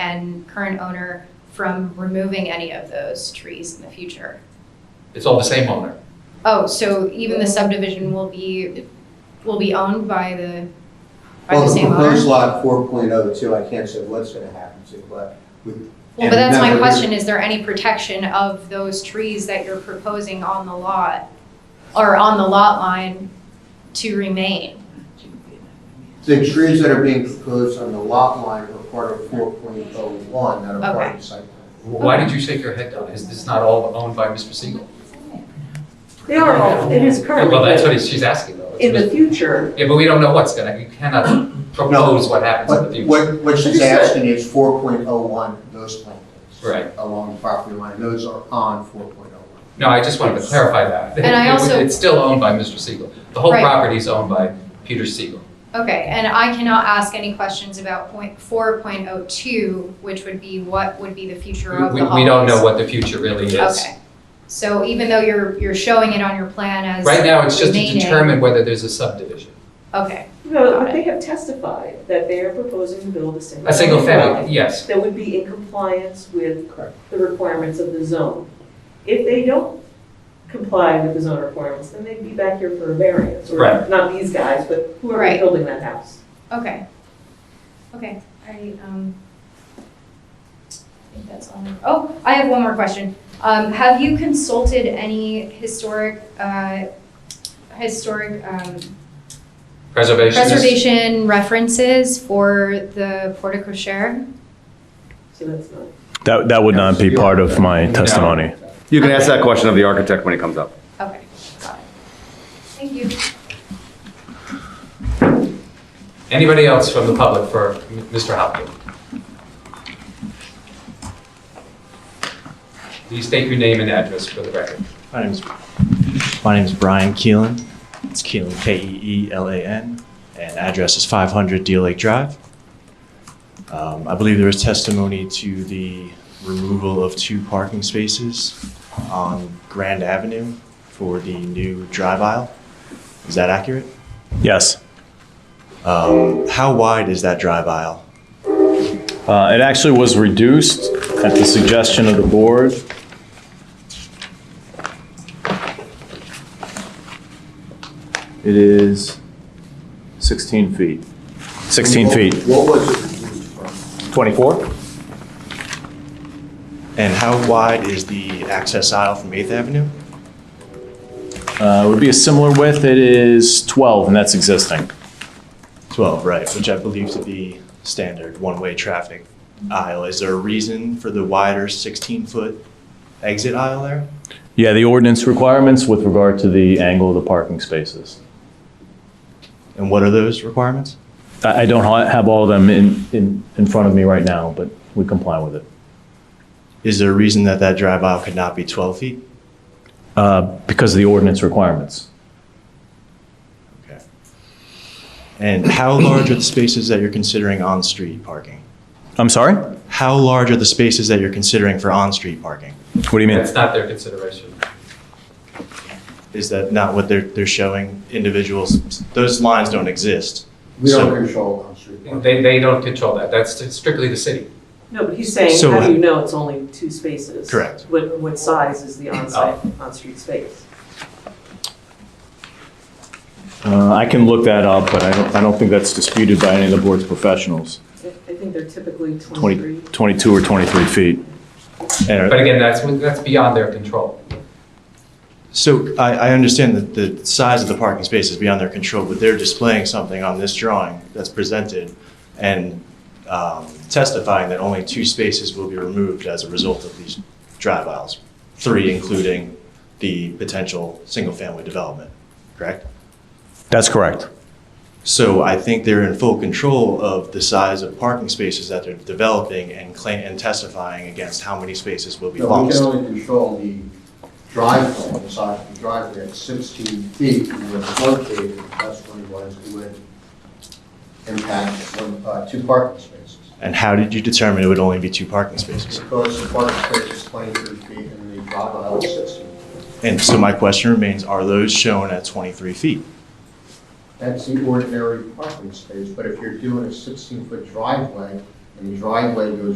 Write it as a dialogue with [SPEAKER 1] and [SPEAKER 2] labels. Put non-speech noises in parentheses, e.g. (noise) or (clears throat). [SPEAKER 1] and current owner from removing any of those trees in the future.
[SPEAKER 2] It's all the same owner.
[SPEAKER 1] Oh, so even the subdivision will be, will be owned by the, by the
[SPEAKER 3] Well, the
[SPEAKER 1] same owner?
[SPEAKER 3] proposed lot four point oh two, I can't say what's gonna happen to, but with.
[SPEAKER 1] Well, but that's
[SPEAKER 3] and
[SPEAKER 1] my
[SPEAKER 3] remember,
[SPEAKER 1] question, is there any protection of those trees that you're proposing on the lot or on the lot line to remain?
[SPEAKER 3] The trees that are being proposed on the lot line are part of four point oh one that are part
[SPEAKER 1] Okay.
[SPEAKER 3] of the site plan.
[SPEAKER 2] Why did you shake your head down? Is this not all owned by Mr. Siegel?
[SPEAKER 4] They are all, it is currently,
[SPEAKER 2] Well, that's
[SPEAKER 4] but
[SPEAKER 2] what he's- she's asking though.
[SPEAKER 4] in the future,
[SPEAKER 2] Yeah, but we don't know what's gonna, you
[SPEAKER 1] (clears throat)
[SPEAKER 2] cannot propose what happens in the
[SPEAKER 3] But
[SPEAKER 2] future.
[SPEAKER 3] what, what she's asking is four point oh one, those plantings.
[SPEAKER 2] Right.
[SPEAKER 3] Along the property line, those are on four point oh one.
[SPEAKER 2] No, I just wanted to clarify that.
[SPEAKER 1] And I
[SPEAKER 2] It was-
[SPEAKER 1] also-
[SPEAKER 2] It's still owned by Mr. Siegel. The whole
[SPEAKER 1] Right.
[SPEAKER 2] property is owned by Peter Siegel.
[SPEAKER 1] Okay, and I cannot ask any questions about point four point oh two, which would be what would be the future of
[SPEAKER 2] We,
[SPEAKER 1] the
[SPEAKER 2] we don't know
[SPEAKER 1] holidays.
[SPEAKER 2] what the future really is.
[SPEAKER 1] Okay, so even though you're, you're showing it on your plan as.
[SPEAKER 2] Right now, it's just to
[SPEAKER 1] remaining-
[SPEAKER 2] determine whether there's a subdivision.
[SPEAKER 1] Okay,
[SPEAKER 4] you know, but they have testified that they are proposing to build a single.
[SPEAKER 2] A single family, yes.
[SPEAKER 4] That would be in compliance with
[SPEAKER 3] Correct.
[SPEAKER 4] the requirements of the zone. If they don't comply with the zone requirements, then they'd be back here for a variance. or
[SPEAKER 2] Right.
[SPEAKER 4] Not these guys, but whoever's
[SPEAKER 1] Right.
[SPEAKER 4] building that house.
[SPEAKER 1] okay, okay, I, um, I think that's all. Oh, I have one more question. Um, have you consulted any historic, uh, historic, um,
[SPEAKER 2] Preservation is,
[SPEAKER 1] preservation references for the porte cochere?
[SPEAKER 4] So that's not.
[SPEAKER 5] That, that would not be part of my testimony.
[SPEAKER 6] You can ask that question of the architect when it comes up.
[SPEAKER 1] Okay, got it. Thank you.
[SPEAKER 2] anybody else from the public for M- Mr. Hopkin? Please state your name and address for the record.
[SPEAKER 5] My name's, my name's Brian Keelan. It's Keelan, E K-E-E-L-A-N, and address is 500 Deal Lake Drive. Um, I believe there was testimony to the removal of two parking spaces on Grand Avenue for the new drive aisle. Is that accurate? Yes. Um, how wide is that drive aisle?
[SPEAKER 7] Uh, It actually was reduced at the suggestion of the board. It is 16 feet. 16 feet.
[SPEAKER 3] What was it used for?
[SPEAKER 7] 24?
[SPEAKER 5] And how wide is the access aisle from 8th Avenue?
[SPEAKER 7] Uh, It would be a similar width. It is 12, and that's existing.
[SPEAKER 5] 12, right, which I believe to be standard one-way traffic aisle. Is there a reason for the wider 16-foot exit aisle there?
[SPEAKER 7] Yeah, the ordinance requirements with regard to the angle of the parking spaces.
[SPEAKER 5] And what are those requirements?
[SPEAKER 7] I I don't ha- have all of them in- in in front of me right now, but we comply with it.
[SPEAKER 5] Is there a reason that that drive aisle could not be 12 feet?
[SPEAKER 7] Uh, Because of the ordinance requirements.
[SPEAKER 5] Okay. And how large are the spaces that you're considering on-street parking?
[SPEAKER 7] I'm sorry?
[SPEAKER 5] How large are the spaces that you're considering for on-street parking?
[SPEAKER 7] What do you mean?
[SPEAKER 2] That's not their consideration.
[SPEAKER 5] Is that not what they're, they're showing individuals? Those lines don't exist.
[SPEAKER 3] We don't
[SPEAKER 5] So-
[SPEAKER 3] control on-street parking.
[SPEAKER 2] They, they don't control that. That's strictly the city.
[SPEAKER 4] No, but he's saying,
[SPEAKER 5] So-
[SPEAKER 4] how do you know it's only two spaces?
[SPEAKER 5] Correct.
[SPEAKER 4] What, what size is the on-site,
[SPEAKER 2] Oh.
[SPEAKER 4] on-street space?
[SPEAKER 7] Uh, I can look that up, but I don't, I don't think that's disputed by any of the board's professionals.
[SPEAKER 4] I I think they're typically
[SPEAKER 7] 20
[SPEAKER 4] 23.
[SPEAKER 7] 22 or 23 feet.
[SPEAKER 5] And-
[SPEAKER 2] But again, that's, that's beyond their control.
[SPEAKER 5] So I, I understand that the size of the parking space is beyond their control, but they're displaying something on this drawing that's presented and um, testifying that only two spaces will be removed as a result of these drive aisles, three including the potential single-family development, correct?
[SPEAKER 7] That's correct.
[SPEAKER 5] So I think they're in full control of the size of parking spaces that they're developing and claim, and testifying against how many spaces will be
[SPEAKER 3] No, we
[SPEAKER 5] lost.
[SPEAKER 3] can only control the driveway, the size of the driveway at 16 feet from where it's located. That's where it was, it would impact one, uh, two parking spaces.
[SPEAKER 5] And how did you determine it would only be two parking spaces?
[SPEAKER 3] Because the parking space is 23 feet and the drive aisle is 16.
[SPEAKER 5] And so my question remains, are those shown at 23 feet?
[SPEAKER 3] That's the ordinary parking space, but if you're doing a 16-foot driveway and the driveway goes